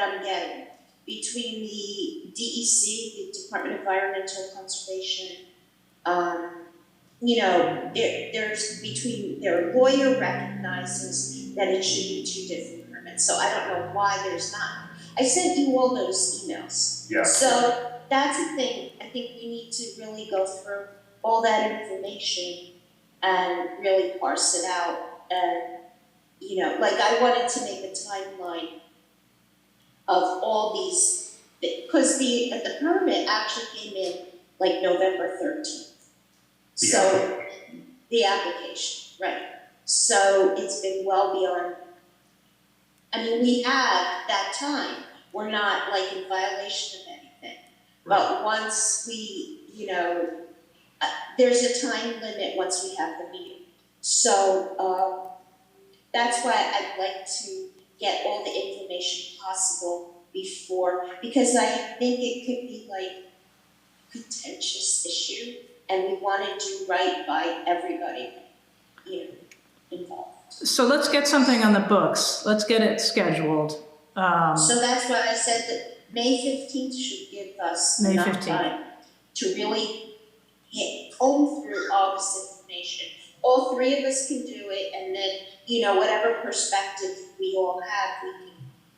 I'm getting. Between the DEC, the Department of Environmental Conservation, um, you know, there, there's between, their lawyer recognizes that it should be two different permits, so I don't know why there's not. I sent you all those emails. Yeah. So that's the thing, I think we need to really go through all that information and really parse it out and you know, like I wanted to make a timeline of all these, because the, the permit actually came in like November thirteenth. The So, the application, right, so it's been well beyond, I mean, we have that time, we're not like in violation of anything. But once we, you know, uh, there's a time limit once we have the meeting. So, um, that's why I'd like to get all the information possible before, because I think it could be like contentious issue, and we wanna do right by everybody, you know, involved. So let's get something on the books. Let's get it scheduled. Um, So that's why I said that May fifteenth should give us May enough 15th. time to really hit, comb through all this information. All three of us can do it, and then, you know, whatever perspective we all have, we can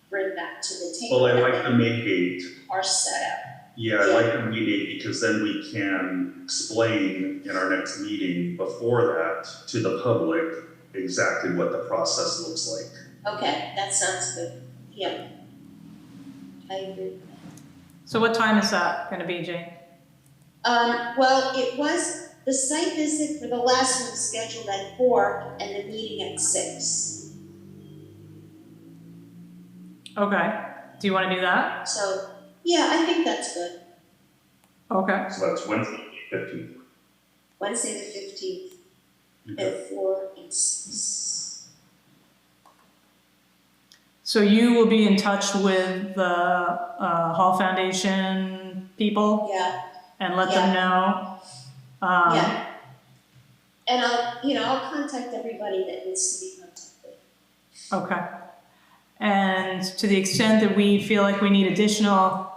bring back to the table. Well, I like the May date. Our setup, Yeah, I like the May date because then we can explain in our next meeting before that to the public exactly what the process looks like. okay, that sounds good, yeah. I agree. So what time is that gonna be, Jane? Um, well, it was, the site visit for the last one scheduled at four and the meeting at six. Okay, do you wanna do that? So, yeah, I think that's good. Okay, So that's Wednesday, fifteenth. Wednesday the fifteenth Okay. at four and six. so you will be in touch with the, uh, Hall Foundation people Yeah, and let them know? Um, yeah. And I'll, you know, I'll contact everybody that needs to be contacted. okay. And to the extent that we feel like we need additional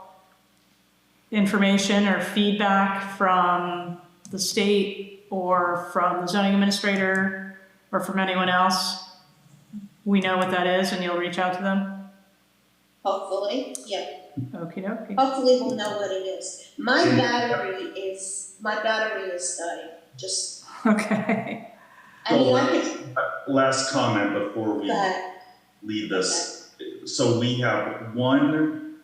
information or feedback from the state or from the zoning administrator or from anyone else, we know what that is and you'll reach out to them? Hopefully, yeah. Okey dokey. Hopefully we'll know what it is. My Mm. battery is, my battery is dying, just, Okay, I mean, I could, Last comment before we but, leave this. So we have one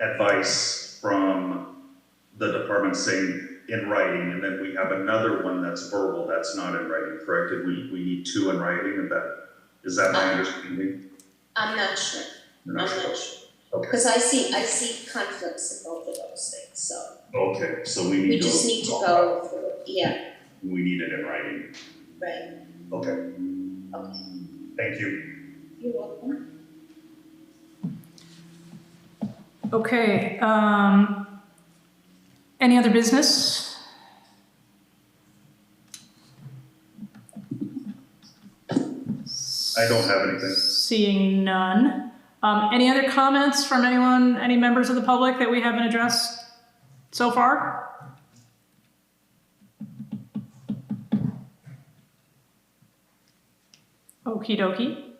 advice from the department saying in writing, and then we have another one that's verbal, that's not in writing, correct? And we, we need two in writing, and that, is that Uh-huh. my understanding? I'm not sure, You're I'm not not sure? sure. Okay. Cause I see, I see conflicts in both of those things, so Okay, so we we need to. just need to go through, it. yeah, We need it in writing. right, Okay, okay. thank you. You're welcome. okay, um, any other business? I don't have anything. Seeing none. Um, any other comments from anyone, any members of the public that we haven't addressed so far? Okie dokie.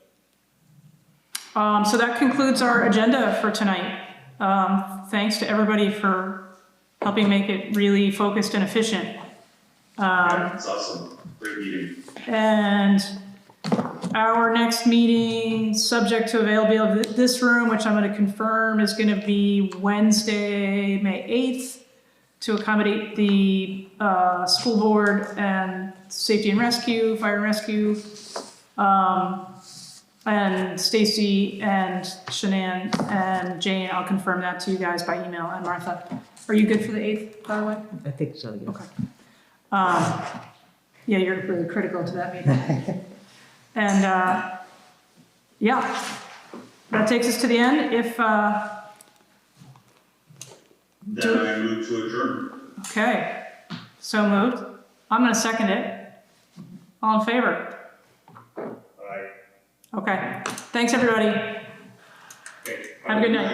Um, so that concludes our agenda for tonight. Um, thanks to everybody for helping make it really focused and efficient. Um, It's awesome, great meeting. and our next meeting, subject to availability of this room, which I'm gonna confirm, is gonna be Wednesday, May 8th, to accommodate the uh, school board and safety and rescue, fire and rescue. Um, And Stacy and Shanann and Jane, I'll confirm that to you guys by email, and Martha. Are you good for the 8th, by the way? I think so, yes. Um, Yeah, you're really critical to that meeting. And, uh, yeah, that takes us to the end. If, uh, Then I move to adjourn. okay, so moved. I'm going to second it. All in favor? Aye. Okay. Thanks, everybody. Okay. Have a good night.